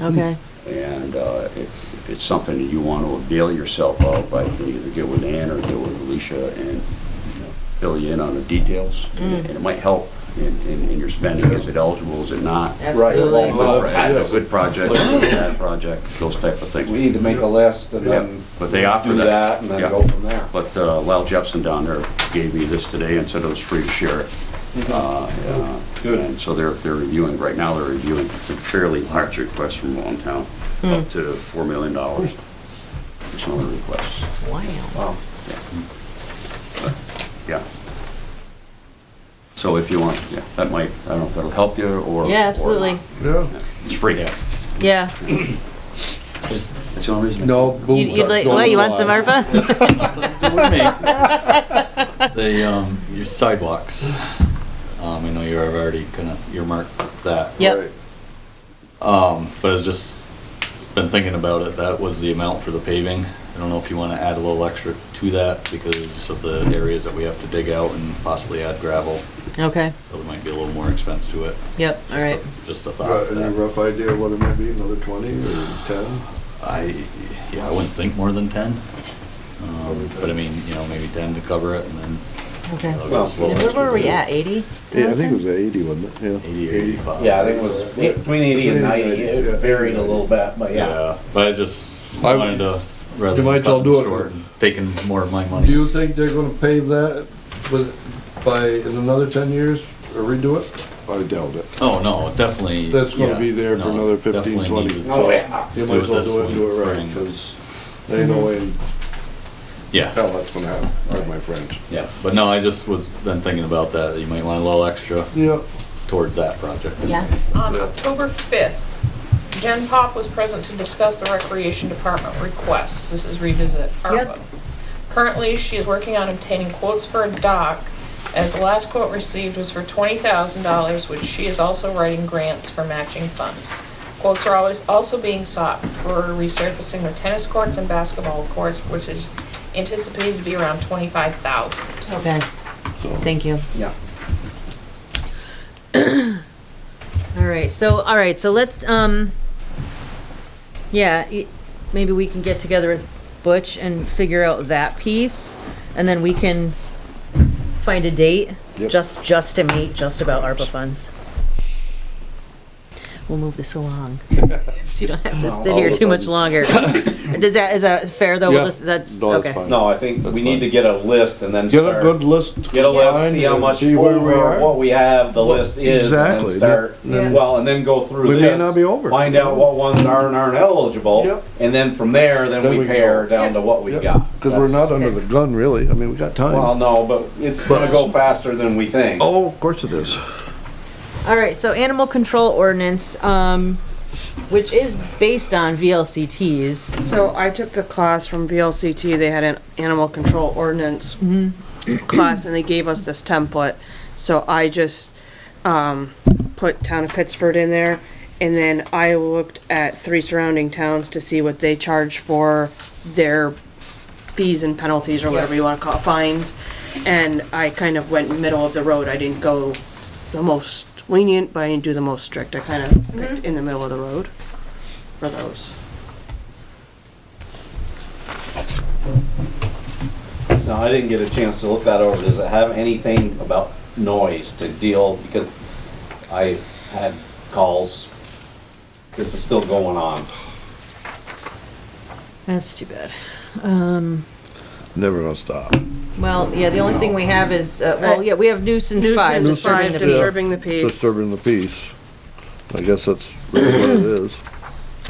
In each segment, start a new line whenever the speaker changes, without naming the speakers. Okay,
And uh, if if it's something that you want to avail yourself of, I can either get with Ann or get with Alicia and you know, fill you in on the details. And it might help in- in in your spending. Is it eligible, is it not?
absolutely.
Good
Well,
project, Good project, bad project, those type of
We
things.
need to make a list and
Yep,
then
But they offer
do that and
Yeah.
then go from there.
But uh, Lyle Jepson down there gave me this today and said it was free to share it. Uh, uh,
Good.
And so they're, they're reviewing, right now, they're reviewing some fairly large requests from Longtown,
Hmm.
up to $4 million. There's some other requests,
Wow.
Wow.
yeah. So if you want, yeah, that might, I don't know if that'll help you or.
Yeah,
or
absolutely.
not.
Yeah.
It's free.
Yeah.
Just
That's the only reason.
No boom.
You'd you'd like, what, you want some ARPA?
do with me. The, um, your sidewalks, um, I know you're already gonna earmark that.
Yep.
Um, but I was just, been thinking about it, that was the amount for the paving. I don't know if you wanna add a little extra to that because of the areas that we have to dig out and possibly add gravel.
Okay,
So there might be a little more expense to it.
yep, all right.
Just a thought.
Got any rough idea what it might be, another twenty or ten?
I, yeah, I wouldn't think more than ten. Um, but I mean, you know, maybe ten to cover it and then
Okay.
Well,
Well,
well,
Where were we at, eighty?
Yeah, I think it was eighty, wasn't it? Yeah.
eighty or eighty-five.
Yeah, I think it was between eighty and ninety, it varied a little bit, but yeah.
Yeah, but I just
I-
wanted to rather.
You might
cut
all do it.
short and Taking more of my
Do
money.
you think they're gonna pave that with, by, in another ten years, or redo it?
I doubt it.
Oh, no, definitely.
That's gonna
yeah,
be there for
no,
another 15,
definitely
20.
needs it.
Oh, yeah.
You
Do
might
it
as well
this
do it,
one,
do it right,
spring.
cause Mhm. they know in
Yeah,
hell that's gonna happen, right, my friends?
yeah, but no, I just was then thinking about that, you might want a little extra
Yeah.
towards that project.
Yeah.
On
Yeah.
October 5th, Jen Pop was present to discuss the Recreation Department requests. This is revisit ARPA.
Yep.
Currently, she is working on obtaining quotes for a dock, as the last quote received was for $20,000, which she is also writing grants for matching funds. Quotes are always, also being sought for resurfacing the tennis courts and basketball courts, which is anticipated to be around 25,000.
Okay, thank you.
Yeah.
All right, so, all right, so let's, um, yeah, y- maybe we can get together with Butch and figure out that piece, and then we can find a date,
Yep.
just, just to meet, just about ARPA funds. We'll move this along, so you don't have to sit here too much longer. Does that, is that fair, though? We'll
Yeah.
just, that's,
No, that's
okay.
fine.
No, I think we
That's
need to
fine.
get a list and then
Get a good
start.
list.
Get a
line
list, see how
and
much
see where we
over,
are.
what we have, the list is, and then
Exactly,
start,
yeah.
well, and then go through
We
this.
may not be over.
Find out what ones are and aren't eligible,
Yep.
and then from there, then
Then
we
we can
pare
go.
down to what we
Yep.
got.
Cause we're
That's-
not under the gun, really, I mean, we got
Well,
time.
no, but it's gonna go faster than we think.
Oh, of course it is.
All right, so animal control ordinance, um, which is based on VLCTs.
So I took the class from VLCT, they had an animal control ordinance class, and they gave us this template. So I just, um, put town of Pittsford in there, and then I looked at three surrounding towns to see what they charge for their fees and penalties, or whatever you wanna call it, fines. And I kind of went middle of the road, I didn't go the most lenient, but I didn't do the most strict, I kind of picked in the middle of the road for those.
No, I didn't get a chance to look that over. Does it have anything about noise to deal, because I had calls, this is still going on.
That's too bad.
Never gonna stop.
Well, yeah, the only thing we have is, uh, well, yeah, we have nuisance five.
Nuisance
disturbing
five,
the peace.
disturbing the peace.
Disturbing the peace. I guess that's really what it is.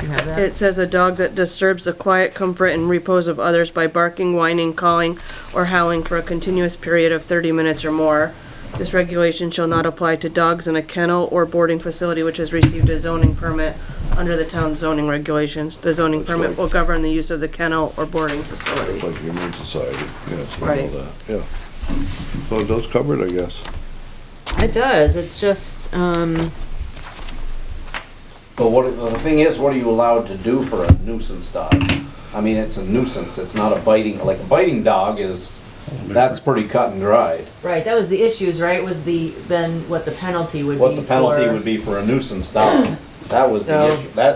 You have that?
It says a dog that disturbs the quiet comfort and repose of others by barking, whining, calling, or howling for a continuous period of thirty minutes or more. This regulation shall not apply to dogs in a kennel or boarding facility which has received a zoning permit under the town's zoning regulations. The zoning
That's
permit
like-
will govern the use of the kennel or boarding facility.
Like human society, yeah, so all
Right.
that, yeah. So it does cover it, I guess.
It does, it's just, um,
But what, the thing is, what are you allowed to do for a nuisance dog? I mean, it's a nuisance, it's not a biting, like a biting dog is, that's pretty cut and dried.
right, that was the issues, right, was the, then what the penalty would be
What the penalty
for-
would be for a nuisance dog, that was the
So-
issue. That,